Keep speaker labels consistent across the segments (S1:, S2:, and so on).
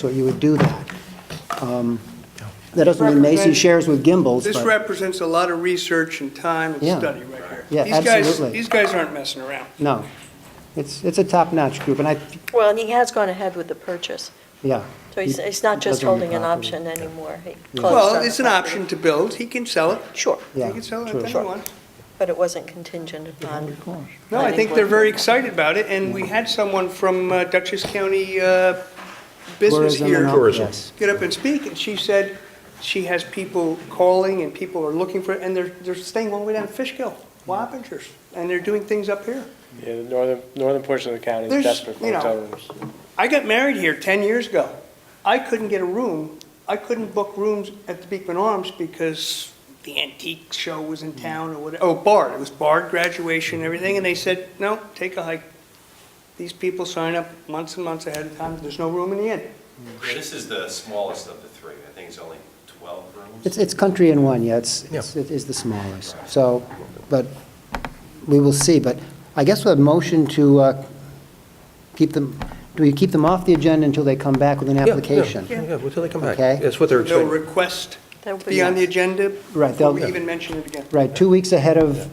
S1: So you would do that. Um, That doesn't mean Macy
S2: Represent-
S1: shares with Gimbel's,
S2: This
S1: but,
S2: represents a lot of research and time
S1: Yeah.
S2: and study right here.
S1: Yeah,
S2: These guys-
S1: absolutely.
S2: These guys aren't messing around.
S1: no. It's, it's a top-notch group, and I,
S3: Well, and he has gone ahead with the purchase,
S1: yeah.
S3: so he's,
S1: He
S3: he's not just
S1: doesn't own the
S3: holding an
S1: property.
S3: option anymore. He closed on
S2: Well,
S3: the
S2: it's an
S3: property.
S2: option to build, he can sell it,
S3: Sure,
S2: he
S1: Yeah,
S2: can sell it
S1: true.
S2: if he wants.
S3: but it wasn't contingent upon.
S2: No, I
S3: planning
S2: think they're
S3: board.
S2: very excited about it, and we had someone from uh, Dutchess County uh, Business
S1: Tourism and
S2: here
S1: all-
S4: Tourism.
S1: yes.
S2: get up and speak, and she said she has people calling and people are looking for, it, and they're, they're staying one way down Fishkill, Wappingers, and they're doing things up here.
S5: Yeah, the northern, northern portion of the county
S2: There's,
S5: is desperate for
S2: you know,
S5: hotel rooms.
S2: I got married here 10 years ago. I couldn't get a room. I couldn't book rooms at the Beekman Arms because the antique show was
S1: Mm-hmm.
S2: in town or whatever. Oh, Bard. It was Bard graduation and everything. And they said, no, take a hike. These people sign up months and months ahead of time. There's no room in the inn.
S6: Yeah, This is the smallest of the three. I think it's only 12 rooms.
S1: It's, it's country in one, yeah, it's,
S4: Yeah.
S1: it's- it is the smallest. So, but we will see, but I guess with a motion to uh, keep them, do we keep them off the agenda until they come back with an application?
S4: Yeah, yeah, until they come back.
S1: Okay.
S4: That's what they're
S2: No
S4: expecting.
S2: request
S3: That would be-
S2: be on the agenda.
S1: Right, they'll-
S2: Before we even mention it again.
S1: Right, two weeks ahead of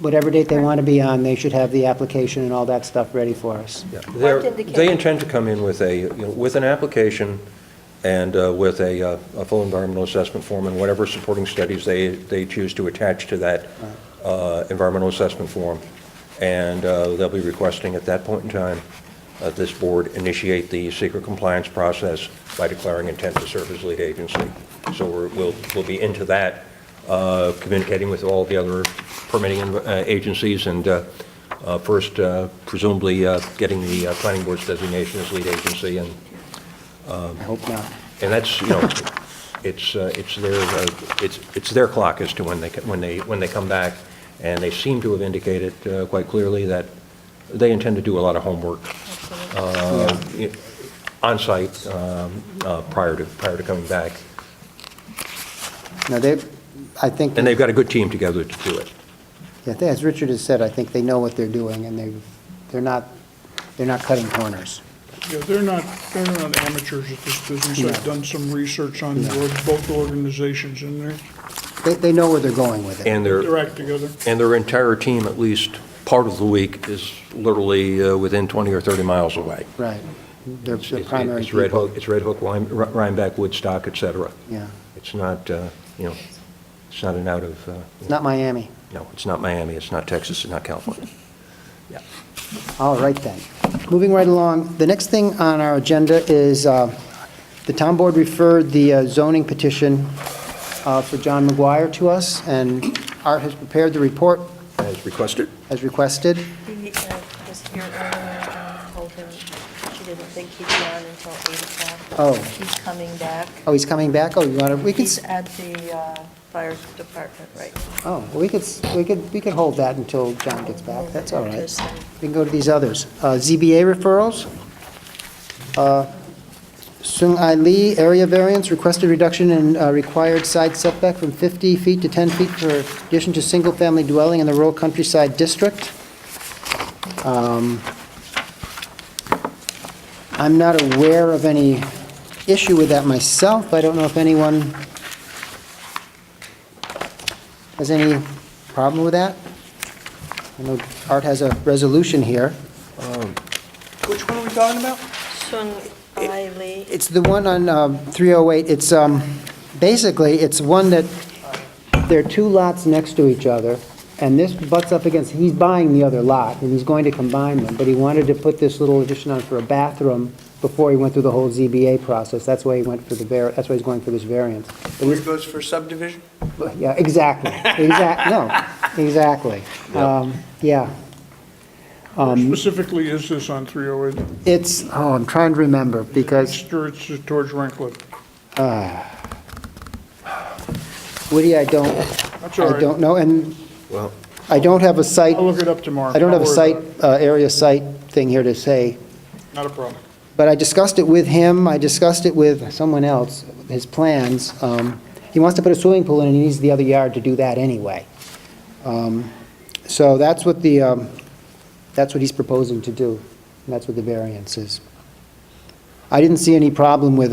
S1: whatever date they want to be on, they should have the application and all that stuff ready for us.
S4: Yeah, they're-
S3: Mark indicated-
S4: They intend to come in with a, you know, with an application and uh, with a, uh, a full environmental assessment form and whatever supporting studies they, they choose to attach to that uh, environmental assessment form. And uh, they'll be requesting at that point in time, uh, this board initiate the secret compliance process by declaring intent to serve as lead agency. So we're, we'll, we'll be into that, uh, communicating with all the other permitting uh, agencies and uh, uh, First, uh, presumably uh, getting the uh, planning board's designation as lead agency, and,
S1: I hope not.
S4: and that's, you know, it's, uh, it's their, uh, it's, it's their clock as to when they, when they, when they come back, and they seem to have indicated uh, quite clearly that they intend to do a lot of homework uh, i- on-site um, uh, prior to, prior to coming back,
S1: No, they, I think,
S4: and they've got a good team together to do it.
S1: yeah, they- as Richard has said, I think they know what they're doing, and they, they're not, they're not cutting corners.
S7: Yeah, they're not, they're not amateurs at this business. I've done some research on the org- both organizations, and they're,
S1: They, they know where they're going with it.
S4: And they're,
S7: they're act together.
S4: and their entire team, at least part of the week, is literally uh, within 20 or 30 miles away.
S1: Right. They're
S4: It's-
S1: the
S4: It's
S1: primary
S4: it's Red
S1: people.
S4: Hook, it's Red Hook, Lime- Ri- Rhinebeck, Woodstock, et cetera.
S1: Yeah.
S4: It's not, uh, you know, it's not an out of, uh,
S1: It's not Miami.
S4: no, it's not Miami, it's not Texas, it's not California.
S1: All right then. Moving right along, the next thing on our agenda is, uh, the town board referred the uh, zoning petition uh, for John McGuire to us, and Art has prepared the report
S4: As requested?
S1: as requested.
S3: He uh, was here earlier and told him she didn't think he'd be on until 8 o'clock.
S1: Oh.
S3: He's coming back.
S1: Oh, he's coming back? Oh, you want to, we could,
S3: He's
S1: s-
S3: at the uh, fire department right now.
S1: oh, we could, s- we could, we could hold that until John gets back. That's all right.
S3: Because, uh,
S1: We can go to these others. Uh, ZBA referrals. Uh, Sung Ai Lee, area variance, requested reduction in uh, required side setback from 50 feet to 10 feet for addition to single-family dwelling in the rural countryside district. Um, I'm not aware of any issue with that myself. I don't know if anyone has any problem with that. I know Art has a resolution here.
S2: Which one are we talking about?
S3: Sun Ai Lee,
S1: It's the one on um, 308, it's, um, basically, it's one that, there are two lots next to each other, and this butts up against, he's buying the other lot, and he's going to combine them, but he wanted to put this little addition on for a bathroom before he went through the whole ZBA process, that's why he went for the, var. that's why he's going for this variance. But
S2: Where
S1: he's-
S2: it goes for subdivision?
S1: Yeah, exactly, exact, no, exactly. Um, Yeah, Um,
S7: Specifically, is this on 308?
S1: it's, oh, I'm trying to remember, because
S7: It's towards it's towards Renklin.
S1: Woody, I don't,
S7: That's all
S1: I
S7: right.
S1: don't know, and
S4: Well,
S1: I don't have a site.
S7: I'll look it up tomorrow.
S1: I don't have a
S7: worry
S1: site,
S7: about
S1: uh, area site thing here to say,
S7: it. Not a problem.
S1: but I discussed it with him, I discussed it with someone else, his plans. Um, He wants to put a swimming pool in, and he needs the other yard to do that anyway. Um, So that's what the, um, that's what he's proposing to do, and that's what the variance is. I- I didn't see any problem with it.